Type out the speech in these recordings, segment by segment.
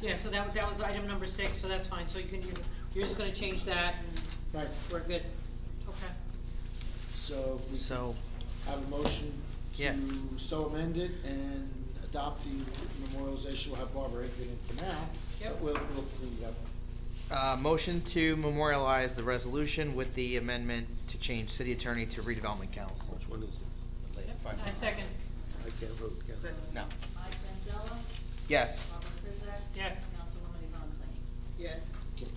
Yeah, so that, that was item number six, so that's fine, so you can, you're- you're just gonna change that, and Right, we're good. Okay. so if we So, have a motion Yeah. to so amend it and adopt the memorialization, we'll have Barbara Hickman in for now. Yep. but We'll, we'll clean it up. uh, motion to memorialize the resolution with the amendment to change city attorney to redevelopment council. Which one is it? I second. I can't vote, can I? No. Mike Manzella, Yes. Robert Krizak. Yes. Councilwoman Yvonne Clay. Yes. Okay.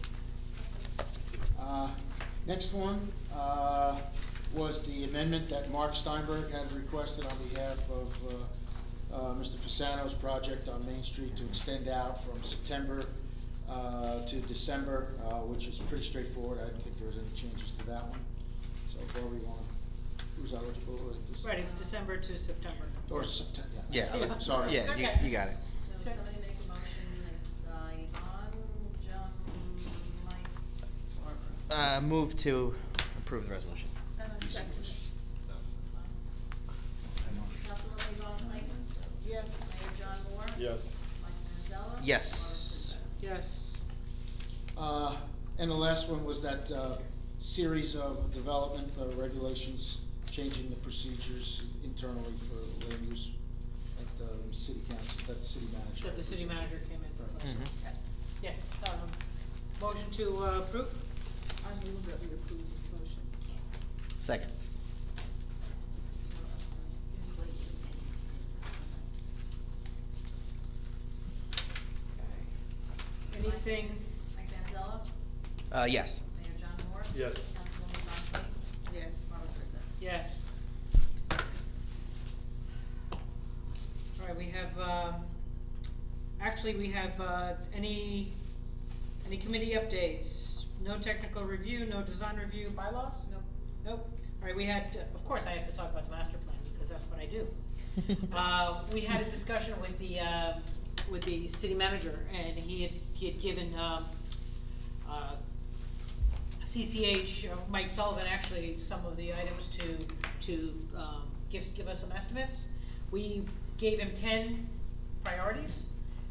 Uh, Next one uh, was the amendment that Mark Steinberg had requested on behalf of uh, uh, Mr. Fasano's project on Main Street to extend out from September uh, to December, uh, which is pretty straightforward. I didn't think there was any changes to that one. So if we want, who's eligible? or is- Right, it's December to September. Or September, yeah. Yeah. Yeah. Sorry. Yeah, you, Okay. you got it. So Sure. somebody make a motion, it's uh, Yvonne, John, Mike, Barbara. Uh, move to approve the resolution. Councilwoman Yvonne Clay. Yes. Mayor John Moore. Yes. Mike Manzella. Yes. Robert Krizak. Yes. Uh, And the last one was that uh, series of development uh, regulations, changing the procedures internally for land use at the city council, that the city manager. That the city manager came in. Mhm. Yes. Yes, um, motion to uh, approve? I move that we approve this motion. Second. Anything? Mike Manzella. Uh, yes. Mayor John Moore. Yes. Councilwoman Yvonne Clay. Yes. Robert Krizak. Yes. All right, we have, um, actually, we have, uh, any, any committee updates? No technical review, no design review, bylaws? Nope. Nope. All right, we had, of course, I have to talk about the master plan, because that's what I do. Uh, we had a discussion with the, uh, with the city manager, and he had, he had given, um, uh, CCH, uh, Mike Sullivan, actually, some of the items to, to, um, give, give us some estimates. We gave him ten priorities,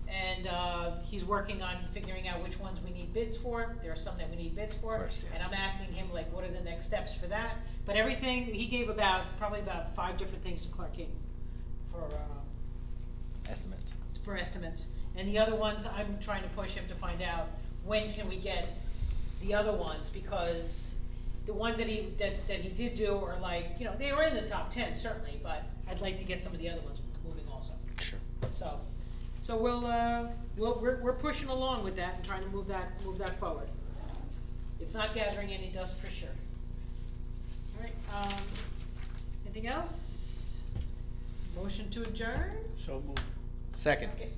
and, uh, he's working on figuring out which ones we need bids for, there are some that we need bids for. Of course, yeah. And I'm asking him, like, what are the next steps for that, but everything, he gave about, probably about five different things to Clark King for, uh, Estimates. for estimates. And the other ones, I'm trying to push him to find out, when can we get the other ones? Because the ones that he, that, that he did do are like, you know, they were in the top ten certainly, but I'd like to get some of the other ones moving also. Sure. So, so we'll, uh, we'll, we're, we're pushing along with that and trying to move that, move that forward. It's not gathering any dust for sure. All right, um, anything else? Motion to adjourn? So moved. Second. Okay.